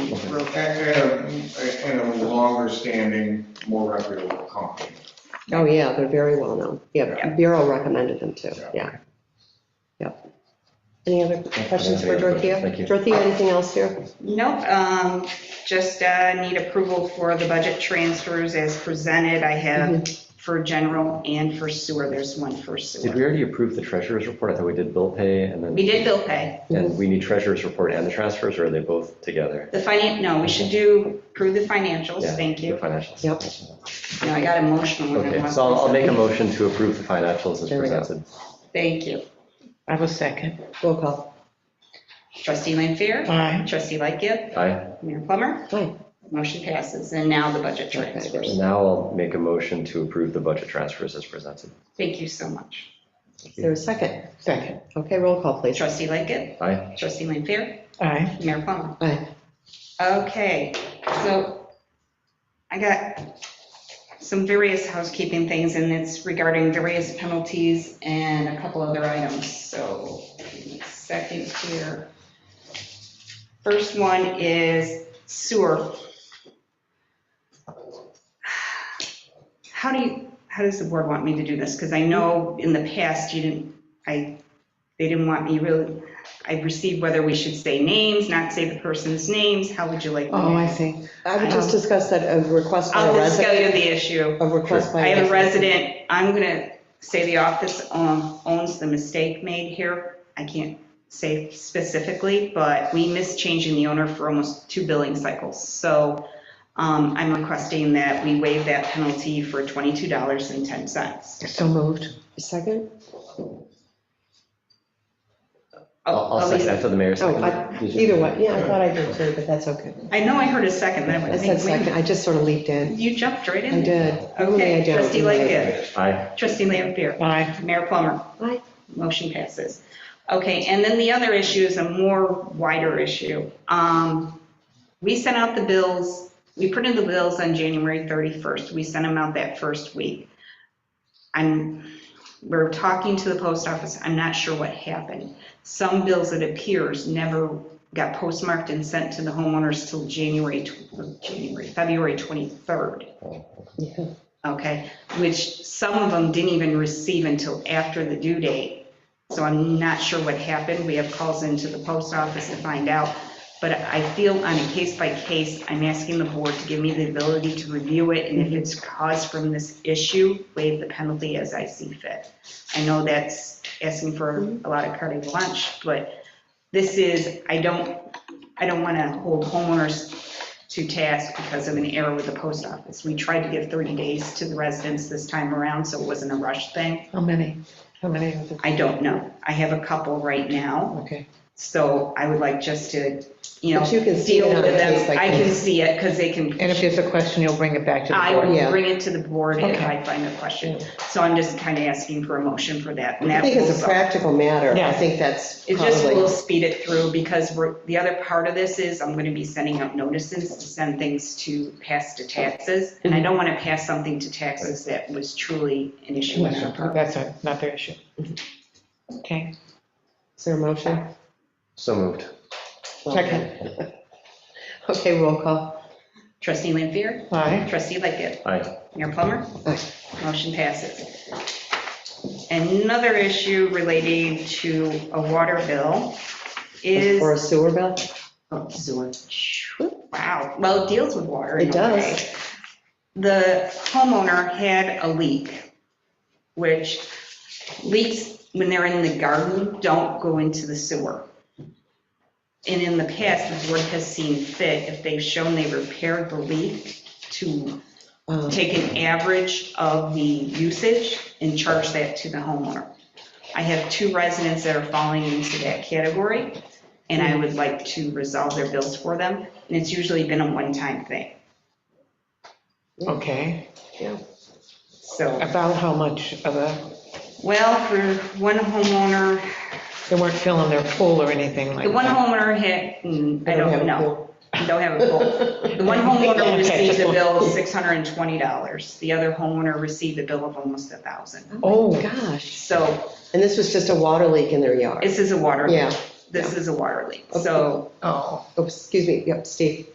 And and a, and a longer-standing, more reputable company. Oh, yeah, they're very well known. Yeah, Bureau recommended them too, yeah. Yep. Any other questions for Dorothea? Thank you. Dorothea, anything else here? Nope, um, just, uh, need approval for the budget transfers as presented. I have for general and for sewer. There's one for Did we sewer. already approve the treasurer's report? I thought we did bill pay and then. We did bill pay. And we need treasurer's report and the transfers, or are they both together? The finan, no, we should do, approve the financials. Yeah, Thank you. The financials. Yep. No, I got emotional. when I Okay, watched so I'll I'll make a this. motion to approve the financials as There we go. presented. Thank you. I will second. Roll call. Trustee Lanfair? Aye. Trustee Lightgift? Aye. Mayor Plummer? Hi. Motion passes. And now the budget Okay, transfers. And now I'll make a motion to approve the budget transfers as presented. Thank you so much. Is there a second? Second. Okay, roll call, please. Trustee Lightgift? Aye. Trustee Lanfair? Aye. Mayor Plummer? Aye. Okay, so I got some various housekeeping things, and it's regarding various penalties and a couple other items, so give me a second here. First one is sewer. How do you, how does the board want me to do this? Because I know in the past you didn't, I, they didn't want me really, I received whether we should say names, not say the person's names, how would you like? me to- Oh, I see. I would just discuss that a request by I'll a just go resident. to the issue. A request by. I have a resident, I'm gonna say the office um, owns the mistake made here. I can't say specifically, but we missed changing the owner for almost two billing cycles. So um, I'm requesting that we waive that penalty for $22.10. So moved. Second? Oh, I'll I'll second Elisa, after the mayor Oh, seconded. I- Did you- either one. Yeah, I thought I did too, but that's okay. I know I heard a second, that I would said make second. me. I just sort of leaped in. You jumped right in. I there. did. Normally I Okay, don't. trustee Lightgev. Aye. Trustee Lampier. Aye. Mayor Plummer. Aye. Motion passes. Okay, and then the other issue is a more wider issue. Um, We sent out the bills, we printed the bills on January 31st. We sent them out that first week. I'm, we're talking to the post office, I'm not sure what happened. Some bills, it appears, never got postmarked and sent to the homeowners till January, tw- January, February 23rd. Yeah. Okay, which some of them didn't even receive until after the due date. So I'm not sure what happened. We have calls into the post office to find out. But I feel on a case by case, I'm asking the board to give me the ability to review it. And if it's caused from this issue, waive the penalty as I see fit. I know that's asking for a lot of carte blanche, but this is, I don't, I don't want to hold homeowners to task because of an error with the post office. We tried to give 30 days to the residents this time around, so it wasn't a rush thing. How many? How many of them? I don't know. I have a couple right now, Okay. so I would like just to, you know, But you can see it deal on with a case them. by I can case. see it because they can, And if there's a question, you'll bring it back to I the board? will Yeah. bring it to the board if Okay. I find a question. So I'm just kind of asking for a motion for that. and I that think will it's a solve- practical matter. I Yeah. think that's It just will probably, speed it through because we're, the other part of this is I'm going to be sending out notices to send things to pass to taxes. And Mm-hmm. I don't want to pass something to taxes that was truly an issue on our part. That's a- not their issue. Okay. is there a motion? So moved. Second. Okay, roll call. Trustee Lampier? Aye. Trustee Lightgiv? Aye. Mayor Plummer? Aye. Motion passes. Another issue relating to a water bill is. For a sewer bill? Oh, sewer. Wow, well, it deals with water. in It a does. way. The homeowner had a leak, which leaks, when they're in the garden, don't go into the sewer. And in the past, the board has seen fit, if they've shown they repaired the leak, to Um, take an average of the usage and charge that to the homeowner. I have two residents that are falling into that category, and I would like to resolve their bills for them, and it's usually been a one-time thing, Okay. so. About how much of a, Well, for one homeowner, they weren't filling their pool or anything like the one that? homeowner had, mm, I they have don't a know, pool. don't have a pool. The one homeowner Okay, received a just- bill of $620, the other homeowner received a bill of almost a 1000 Oh, Oh. my gosh. So And this was just a water leak in their yard? this is a water, leak. Yeah. this is a water leak, Okay. so. Oh, Oh, Excuse me, yep, Steve.